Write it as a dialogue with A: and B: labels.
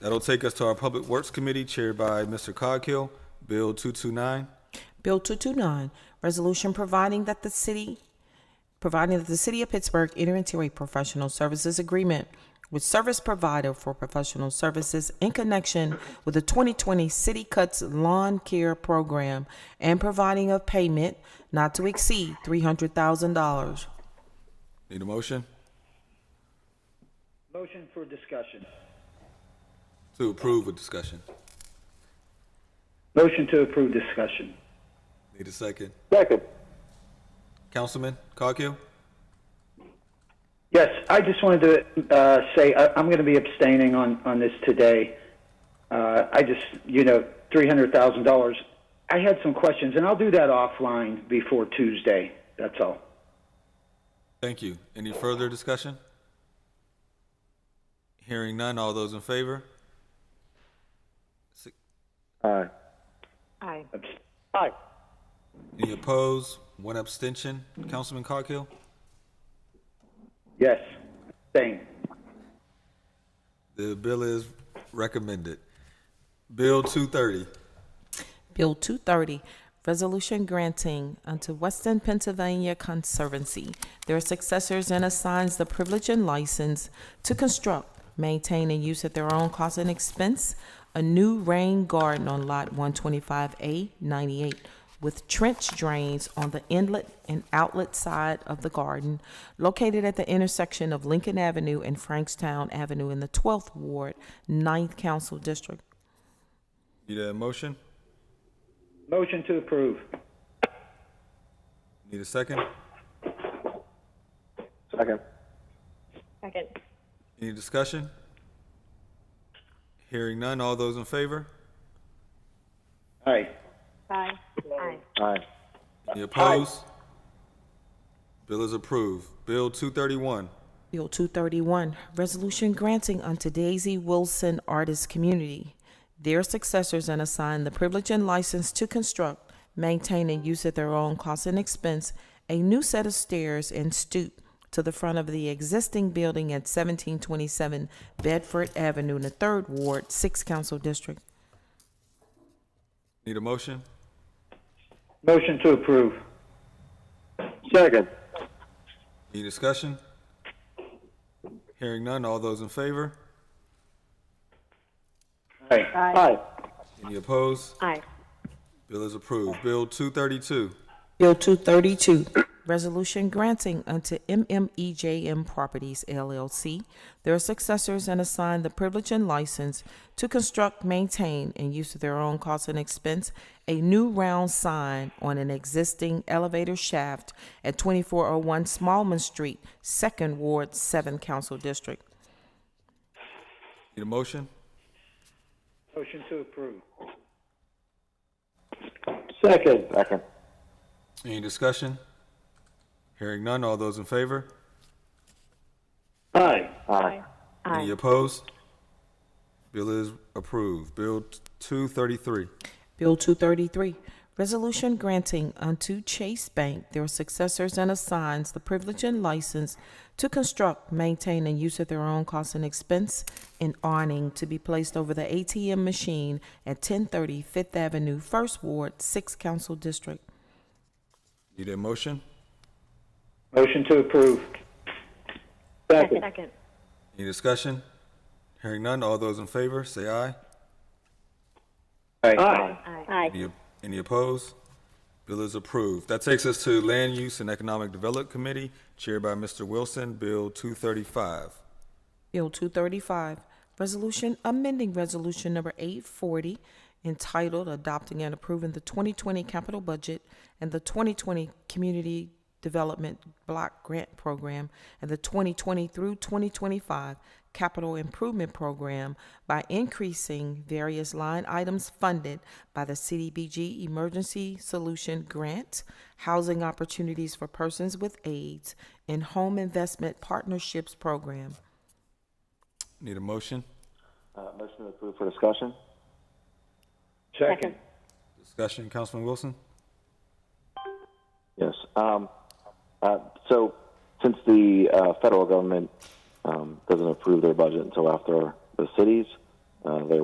A: That'll take us to our Public Works Committee chaired by Mr. Coghill. Bill 229,
B: Bill 229, resolution providing that the city, providing that the city of Pittsburgh enter into a professional services agreement with service provider for professional services in connection with the 2020 City Cuts Lawn Care Program and providing a payment not to exceed $300,000.
A: need a motion?
C: Motion for discussion.
A: To approve with discussion.
C: Motion to approve discussion.
A: Need a second.
D: Second.
A: Councilman Coghill?
C: Yes, I just wanted to uh, say I, I'm going to be abstaining on, on this today. Uh, I just, you know, $300,000. I had some questions, and I'll do that offline before Tuesday. That's all.
A: Thank you. Any further discussion? Hearing none, all those in favor? Si-
D: Aye.
E: Aye.
C: Abst-
D: Aye.
A: Any opposed? One abstention. Councilman Coghill?
C: Yes, abstain.
A: The bill is recommended. Bill 230,
B: Bill 230, resolution granting unto Western Pennsylvania Conservancy their successors and assigns the privilege and license to construct, maintain, and use at their own cost and expense a new rain garden on Lot 125A98 with trench drains on the inlet and outlet side of the garden located at the intersection of Lincoln Avenue and Frankstown Avenue in the 12th Ward, 9th Council District.
A: need a motion?
C: Motion to approve.
A: Need a second?
D: Second.
E: Second.
A: Any discussion? Hearing none, all those in favor?
C: Aye.
E: Aye. Aye.
D: Aye.
A: Any opposed? Bill is approved. Bill 231,
B: Bill 231, resolution granting unto Daisy Wilson Artist Community their successors and assign the privilege and license to construct, maintain, and use at their own cost and expense a new set of stairs and stoop to the front of the existing building at 1727 Bedford Avenue in the 3rd Ward, 6th Council District.
A: need a motion?
C: Motion to approve.
D: Second.
A: Any discussion? Hearing none, all those in favor?
C: Aye.
D: Aye.
A: Any opposed?
E: Aye.
A: Bill is approved. Bill 232,
B: Bill 232, resolution granting unto MMEJM Properties LLC their successors and assign the privilege and license to construct, maintain, and use at their own cost and expense a new round sign on an existing elevator shaft at 2401 Smallman Street, 2nd Ward, 7th Council District.
A: need a motion?
C: Motion to approve.
D: Second. Second.
A: Any discussion? Hearing none, all those in favor?
C: Aye.
D: Aye.
A: Any opposed? Bill is approved. Bill 233,
B: Bill 233, resolution granting unto Chase Bank their successors and assigns the privilege and license to construct, maintain, and use at their own cost and expense an awning to be placed over the ATM machine at 1030 Fifth Avenue, First Ward, 6th Council District.
A: need a motion?
C: Motion to approve.
D: Second.
E: Second.
A: Any discussion? Hearing none, all those in favor, say aye.
D: Aye.
E: Aye.
A: Any, any opposed? Bill is approved. That takes us to Land Use and Economic Development Committee, chaired by Mr. Wilson, Bill 235.
B: Bill 235, resolution amending resolution number 840 entitled Adopting and Approving the 2020 Capital Budget and the 2020 Community Development Block Grant Program and the 2020 through 2025 Capital Improvement Program by increasing various line items funded by the CDBG Emergency Solution Grant, Housing Opportunities for Persons with AIDS, and Home Investment Partnerships Program.
A: Need a motion?
D: Uh, motion to approve for discussion?
C: Second.
A: Discussion, Councilman Wilson?
D: Yes. Um, uh, so, since the uh, federal government um, doesn't approve their budget until after the cities, uh, they